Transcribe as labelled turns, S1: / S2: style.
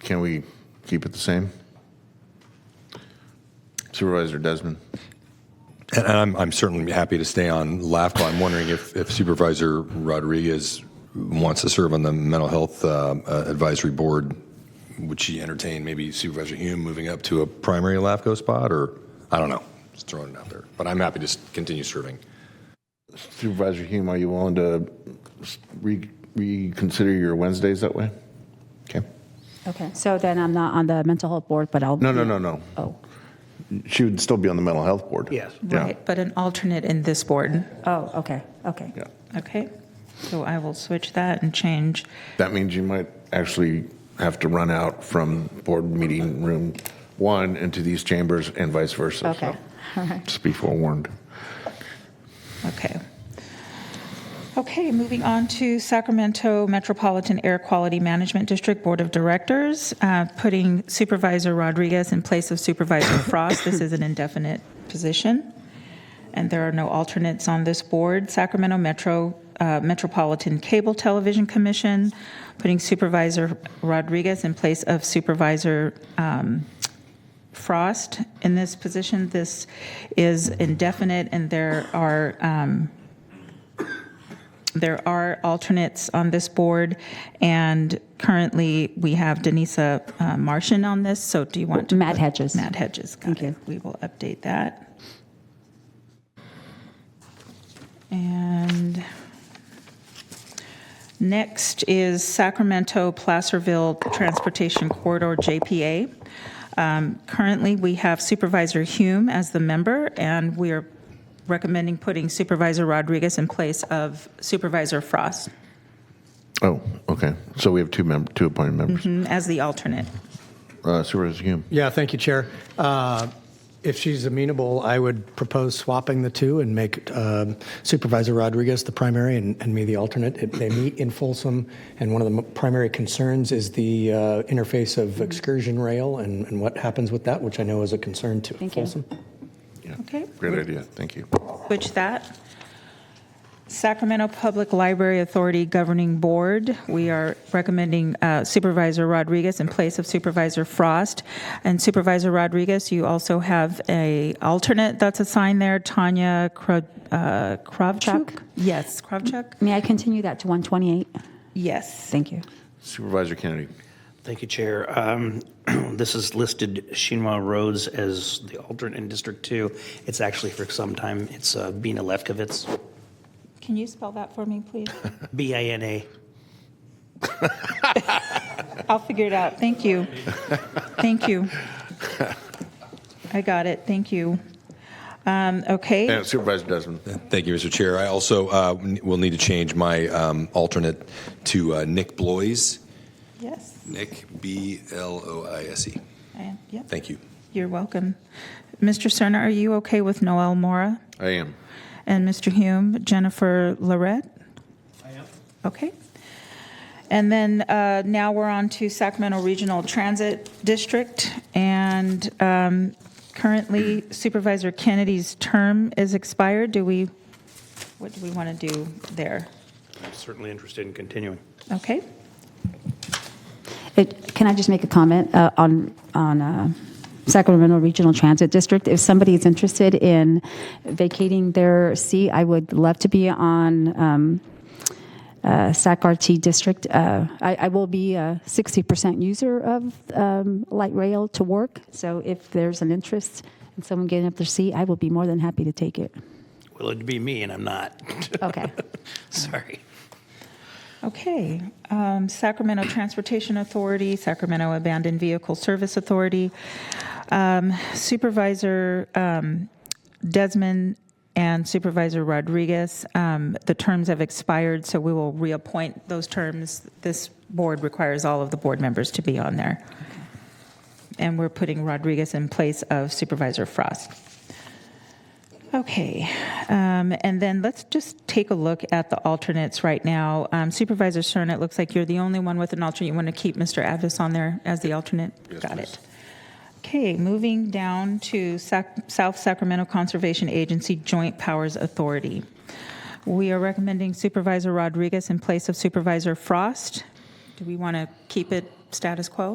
S1: Can we keep it the same? Supervisor Desmond?
S2: And I'm, I'm certainly happy to stay on LAFCO. I'm wondering if, if Supervisor Rodriguez wants to serve on the Mental Health uh, uh, Advisory Board. Would she entertain maybe Supervisor Hume moving up to a primary LAFCO spot, or I don't know? Just throwing it out there. But I'm happy to s- continue serving.
S1: Supervisor Hume, are you willing to re- reconsider your Wednesdays that way? Okay.
S3: Okay, so then I'm not on the mental health board, but I'll.
S1: No, no, no, no.
S3: Oh,
S1: She would still be on the mental health board.
S4: Yes.
S1: Yeah.
S5: Right, but an alternate in this board.
S3: oh, okay, okay.
S1: Yeah.
S5: Okay, so I will switch that and change.
S1: That means you might actually have to run out from board meeting room one into these chambers and vice versa. so
S3: Okay, all right.
S1: Just be forewarned.
S5: Okay. Okay, moving on to Sacramento Metropolitan Air Quality Management District Board of Directors, uh, putting Supervisor Rodriguez in place of Supervisor Frost. This is an indefinite position, and there are no alternates on this board. Sacramento Metro uh, Metropolitan Cable Television Commission, putting Supervisor Rodriguez in place of Supervisor um, Frost in this position. This is indefinite, and there are um, there are alternates on this board, and currently, we have Denisa uh, Martian on this, so do you want to?
S3: Matt
S5: put-
S3: Hedges.
S5: Matt Hedges, got
S3: Thank
S5: it.
S3: you.
S5: We will update that. And next is Sacramento Placerville Transportation Corridor, JPA. Um, Currently, we have Supervisor Hume as the member, and we are recommending putting Supervisor Rodriguez in place of Supervisor Frost
S1: Oh, okay. So we have two mem, two appointed members.
S5: mm, as the alternate. Mm-hmm.
S1: Uh, Supervisor Hume?
S4: Yeah, thank you, Chair. Uh, If she's amenable, I would propose swapping the two and make um, Supervisor Rodriguez the primary and and me the alternate. If They meet in Folsom, and one of the m- primary concerns is the uh, interface of excursion rail and and what happens with that, which I know is a concern to
S3: Thank you.
S4: Folsom.
S1: Yeah.
S5: Okay.
S1: Great idea. Thank you.
S5: Switch that. Sacramento Public Library Authority Governing Board, we are recommending uh, Supervisor Rodriguez in place of Supervisor Frost. And Supervisor Rodriguez, you also have a alternate that's assigned there, Tanya Kro- uh, Kravchuk?
S3: Chuck.
S5: Yes, Kravchuk?
S3: May I continue that to 128?
S5: Yes.
S3: Thank you.
S1: Supervisor Kennedy?
S6: Thank you, Chair. Um, This is listed Shinwa Rhodes as the alternate in District 2. It's actually for some time, it's uh, Bina Lefkowitz,
S5: Can you spell that for me, please?
S6: B-I-N-A.
S5: I'll figure it out. Thank you. Thank you. I got it. Thank you. Um, Okay.
S1: And Supervisor Desmond?
S2: Thank you, Mr. Chair. I also uh, n- will need to change my um, alternate to uh, Nick Bloise.
S5: Yes.
S2: Nick, B L O I S E.
S5: I- Yep.
S2: Thank you.
S5: You're welcome. Mr. Cerna, are you okay with Noel Mora?
S1: I am.
S5: And Mr. Hume, Jennifer Lorette? I am. Okay. And then uh, now we're on to Sacramento Regional Transit District. And um, currently Supervisor Kennedy's term is expired. Do we, what do we want to do there?
S6: I'm certainly interested in continuing.
S5: Okay?
S3: It- Can I just make a comment uh, on, on uh, Sacramento Regional Transit District? If somebody is interested in vacating their seat, I would love to be on um, uh, SACRT District. Uh, I I will be a 60% user of um, light rail to work, so if there's an interest in someone getting up their seat, I will be more than happy to take it.
S6: Well, it'd be me, and I'm not.
S3: Okay.
S6: Sorry.
S5: Okay. um, Sacramento Transportation Authority, Sacramento Abandoned Vehicle Service Authority, um, Supervisor um, Desmond and Supervisor Rodriguez, um, the terms have expired, so we will reappoint those terms. This board requires all of the board members to be on there. And we're putting Rodriguez in place of Supervisor Frost. Okay, um, and then let's just take a look at the alternates right now. Um, Supervisor Stern, it looks like you're the only one with an alternate. You want to keep Mr. Avis on there as the alternate? Got it. Okay, moving down to Sac- South Sacramento Conservation Agency Joint Powers Authority. We are recommending Supervisor Rodriguez in place of Supervisor Frost. Do we want to keep it status quo?